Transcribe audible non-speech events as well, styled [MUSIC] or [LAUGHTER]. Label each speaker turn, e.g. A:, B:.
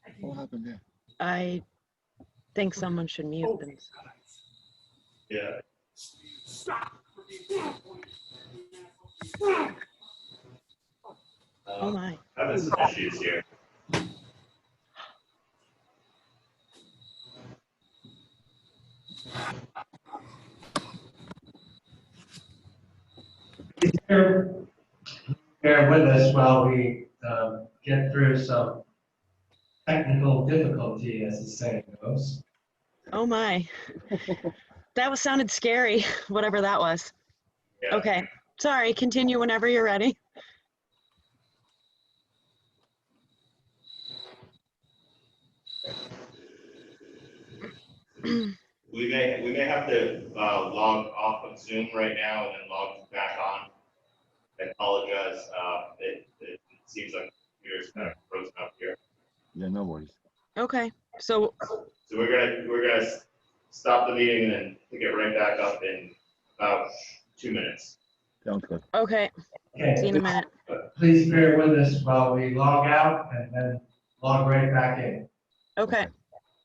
A: What happened there?
B: I think someone should mute them.
C: Yeah.
B: Oh
C: Um,
B: my.
C: Having some issues here.
D: He's here, bear with us while we um, get through some technical difficulty, as the saying goes.
B: Oh my. That was sounded scary, [LAUGHS] whatever that was.
C: Yeah.
B: Okay, sorry, continue whenever you're ready.
C: We may, we may have to uh, log off of Zoom right now and then log back on. I apologize, uh, it, it seems like computers kind of frozen up here.
A: Yeah, no worries.
B: Okay, so,
C: So we're gonna, we're gonna s- stop the meeting and then pick it right back up in about two minutes.
A: Sounds good.
B: okay, see you in a
D: Okay,
B: minute.
D: please bear with us while we log out and then log right back in.
B: Okay,